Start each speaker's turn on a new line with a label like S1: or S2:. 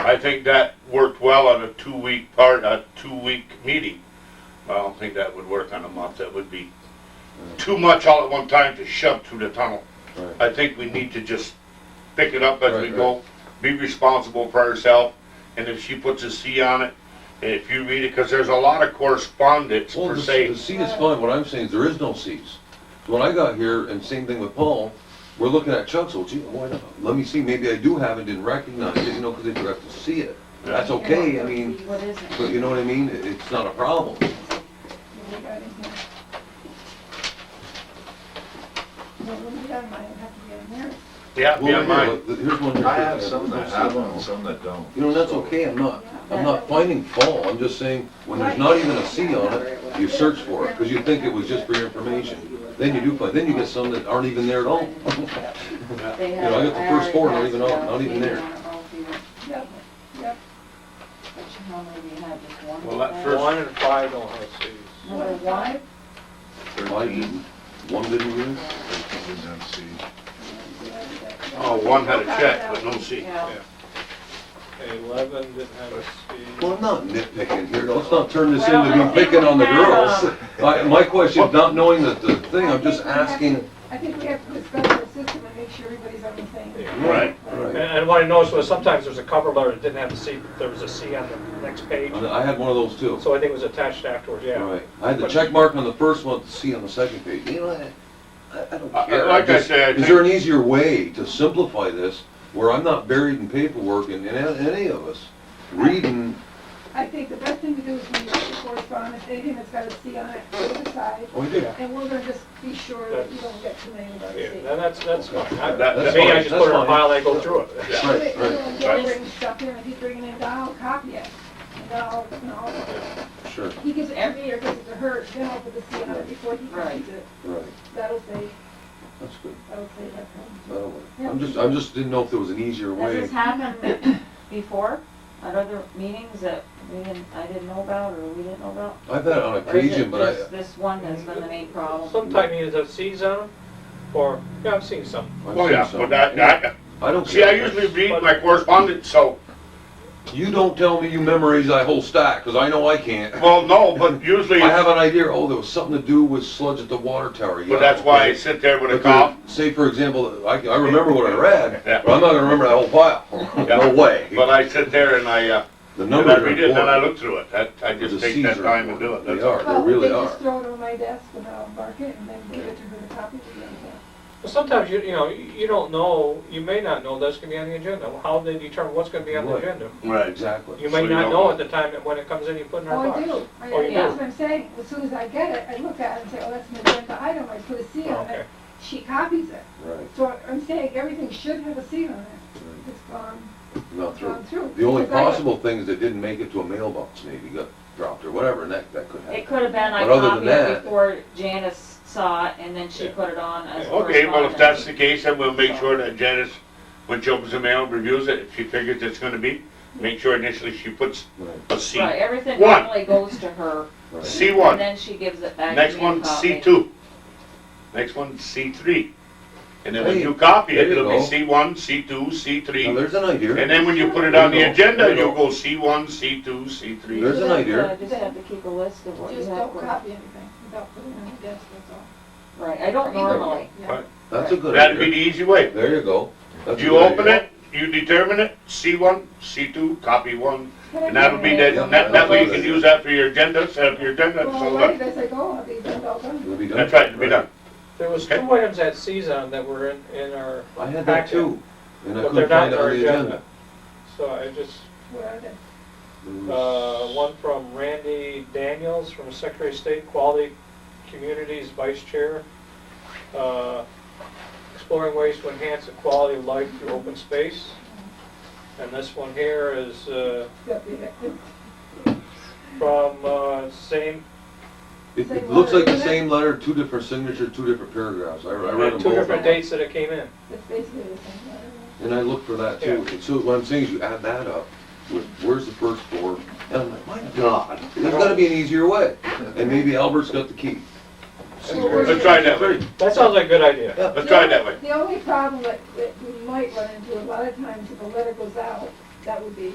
S1: I think that worked well on a two-week part, a two-week meeting. I don't think that would work on a month, that would be too much all at one time to shove through the tunnel.
S2: Right.
S1: I think we need to just pick it up as we
S2: Right,
S1: go, be responsible for herself, and if she puts a C on it, and if you read it, because there's a lot of correspondence
S2: Well,
S1: per
S2: the
S1: se.
S2: the C is fine, what I'm saying is there is no Cs. So When I got here, and same thing with Paul, we're looking at Chuck's, well, gee, why not? Let me see, maybe I do have it, didn't recognize it, you know, because they forgot to see it. That's okay, I mean,
S3: What is it?
S2: but you know what I mean, It- it's not a problem.
S3: What we got in here? Well, what we got, might have to get in there.
S1: Yeah,
S2: Well,
S1: yeah,
S2: here,
S1: mine.
S2: look, Here's one. here.
S4: I have some that
S2: There's no
S4: have
S2: C.
S4: them, and some that don't.
S2: You know, that's okay, I'm not, I'm not finding fault, I'm just saying, when there's not even a C on it, you search for it, because you think it was just for your information. Then you do find, then you get some that aren't even there at all.
S5: They
S2: Uh, know, I got the first four, not even out- not even there.
S3: Yep, yep.
S5: But you normally you have just one.
S1: Well, that
S5: thing.
S1: first-
S6: One and five don't have Cs.
S5: Number one,
S2: Why
S4: Thirteen
S2: didn't, one didn't use?
S4: didn't have C.
S1: Oh, one had a check, but no C.
S5: yeah.
S6: Eleven didn't have a C.
S2: Well, I'm not nitpicking here, let's not turn this into me picking on the girls. My, my question, is not knowing the, the thing, I'm just asking.
S3: I think we have to discuss the system and make sure everybody's on the same.
S6: Yeah.
S1: Right.
S6: And,
S2: Right.
S6: and what I noticed was sometimes there's a cover letter that didn't have a C, but there was a C on the next page,
S2: And I had one of those too.
S6: so I think it was attached afterwards, yeah.
S2: Right, I had the check mark on the first one, the C on the second page, you know, I- I, I don't
S1: I- I-
S2: care.
S1: Uh, like I
S2: just-
S1: said, I
S2: Is there an easier way to simplify this, where I'm not buried in paperwork and, and any of us reading,
S3: I think the best thing to do is we look at the correspondence, anything that's got a C on it, put it aside,
S2: oh, you did.
S3: and we're gonna just be sure that you don't get too many of those
S6: Yeah,
S3: Cs.
S6: and that's, that's fine. I-
S1: That-
S6: To
S1: that's
S6: me, I
S2: fine,
S6: just
S2: that's
S6: put it in a
S2: fine.
S6: file, I go through it.
S1: Yeah.
S2: Right, right,
S3: He'll he'll bring stuff in, if he's bringing it down, copy it. And I'll, and I'll-
S2: sure,
S3: he gives every year, because it's a hurt, then I'll put the C on it before he copies it.
S2: right,
S3: That'll say,
S2: that's good,
S3: that'll say that. from-
S2: that'll work. I'm just, I just didn't know if there was an easier
S5: Has
S2: way.
S5: this happened before at other meetings that we didn't, I didn't know about or we didn't know about?
S2: I've had it on
S5: Or is
S2: occasion,
S5: it
S2: but I,
S5: just this one that's been the main problem?
S6: Sometimes you have Cs on them, or, yeah, I've seen some.
S2: I've
S1: Oh,
S2: seen
S1: yeah,
S2: some.
S1: but that, that,
S2: I don't.
S1: see, I usually read my correspondence, so,
S2: You don't tell me you memorize that whole stack, because I know I can't.
S1: well, no, but usually,
S2: I have
S1: but
S2: an idea, oh, there was something to do with sludge at the water tower. yeah,
S1: that's why I
S2: okay.
S1: sit there with a
S2: But there-
S1: cop.
S2: Say, for example, I, I remember what I read,
S1: Yeah.
S2: but I'm not gonna remember that whole file. No way.
S1: But I sit there and I, uh,
S2: The
S1: and
S2: numbers
S1: I
S2: are
S1: read it and then I
S2: important.
S1: look through it. That, I
S2: The
S1: just take
S2: Cs
S1: that
S2: are
S1: time and do it.
S2: important.
S1: That's
S2: They
S1: all.
S2: are,
S3: Well,
S2: they really
S3: They just
S2: are.
S3: throw it on my desk and I'll mark it and then give it to her to copy it again.
S6: But sometimes you, you know, you don't know, you may not know that's gonna be on the agenda. How they determine what's gonna be on the
S2: Right.
S6: agenda?
S1: Right.
S2: Exactly.
S6: You may
S1: So you
S6: not
S1: don't
S6: know
S1: know.
S6: at the time that when it comes in, you put it in our
S3: Oh, I
S6: box.
S3: do. I-
S6: Oh, you
S3: That's
S5: do.
S3: what I'm saying. As soon as I get it, I look at it and say, oh, that's an agenda item. I put a C on
S6: Okay.
S3: it. She copies it.
S2: Right,
S3: So I'm saying everything should have a C on it. It's gone,
S2: not through.
S3: gone through.
S2: The only
S3: Because I-
S2: possible thing is it didn't make it to a mailbox, maybe got dropped or whatever, and that, that could
S5: It
S2: happen.
S5: could have been, I
S2: But other than
S5: copied
S2: that-
S5: it before Janice saw it and then she
S6: Yeah.
S5: put it on as
S1: Okay, well, if that's
S5: correspondence.
S1: the case, then we'll make sure that Janice, when she opens the mail, reviews it. If she figures it's gonna be, make sure initially she puts
S2: Right,
S1: a C.
S5: Right, everything
S1: One.
S5: normally goes to her.
S2: right.
S1: C one.
S5: And then she gives it back to me.
S1: Next one,
S5: to copy.
S1: C two. Next one, C three. And then when
S2: Hey,
S1: you copy it,
S2: there you
S1: it'll be
S2: go.
S1: C one, C two, C three.
S2: Now,
S1: And
S2: there's an idea.
S1: then when you put it
S2: There
S1: on
S2: you
S1: the
S2: go. There
S1: agenda,
S2: you
S1: you'll
S2: go.
S1: go C one, C two, C three.
S2: There's an
S5: So
S2: idea.
S5: I just have to keep a list of what you
S3: Just
S5: have.
S3: don't
S5: for-
S3: copy anything without putting it on the desk, that's all.
S5: Right, I don't normally.
S3: Yeah.
S2: That's a good
S1: That'd be the
S2: idea.
S1: easy way.
S2: There you go. That's a
S1: You
S2: good
S1: open
S2: idea.
S1: it, you determine it, C one, C two, copy one, and that'll be
S2: Yeah,
S1: that, that, that way you can
S2: that's
S1: use that for your agenda, set up your agenda, and
S3: Well,
S1: so uh,
S3: right,
S1: that.
S3: as I go, I'll be done, all done.
S2: It'll be done.
S1: That's right, to be done.
S6: There was two items at Cs on that were in, in our,
S2: I had that too, and I
S6: but they're
S2: couldn't
S6: not
S2: find
S6: in
S2: it on
S6: our
S2: the
S6: agenda.
S2: agenda.
S6: So I just,
S3: Where are they?
S6: Uh, one from Randy Daniels from Secretary of State Quality Communities Vice Chair. Uh, Exploring ways to enhance the quality of life through open space. And this one here is uh,
S3: They'll be there.
S6: from uh, same,
S2: It,
S3: Same
S2: it looks like the
S3: letter, isn't it?
S2: same letter, two different signature, two different paragraphs. I, I read them
S6: two different
S2: both.
S6: dates that it came in.
S3: It's basically the same letter.
S2: And I looked for that too. So what I'm saying is you add that up with, where's the first four? And I'm like, my God, there's gotta be an easier way. And maybe Albert's got the key.
S1: Let's try that way.
S6: That sounds like a good idea.
S1: Let's try it that way.
S3: The only problem that, that we might run into, a lot of times if a letter goes out, that would be,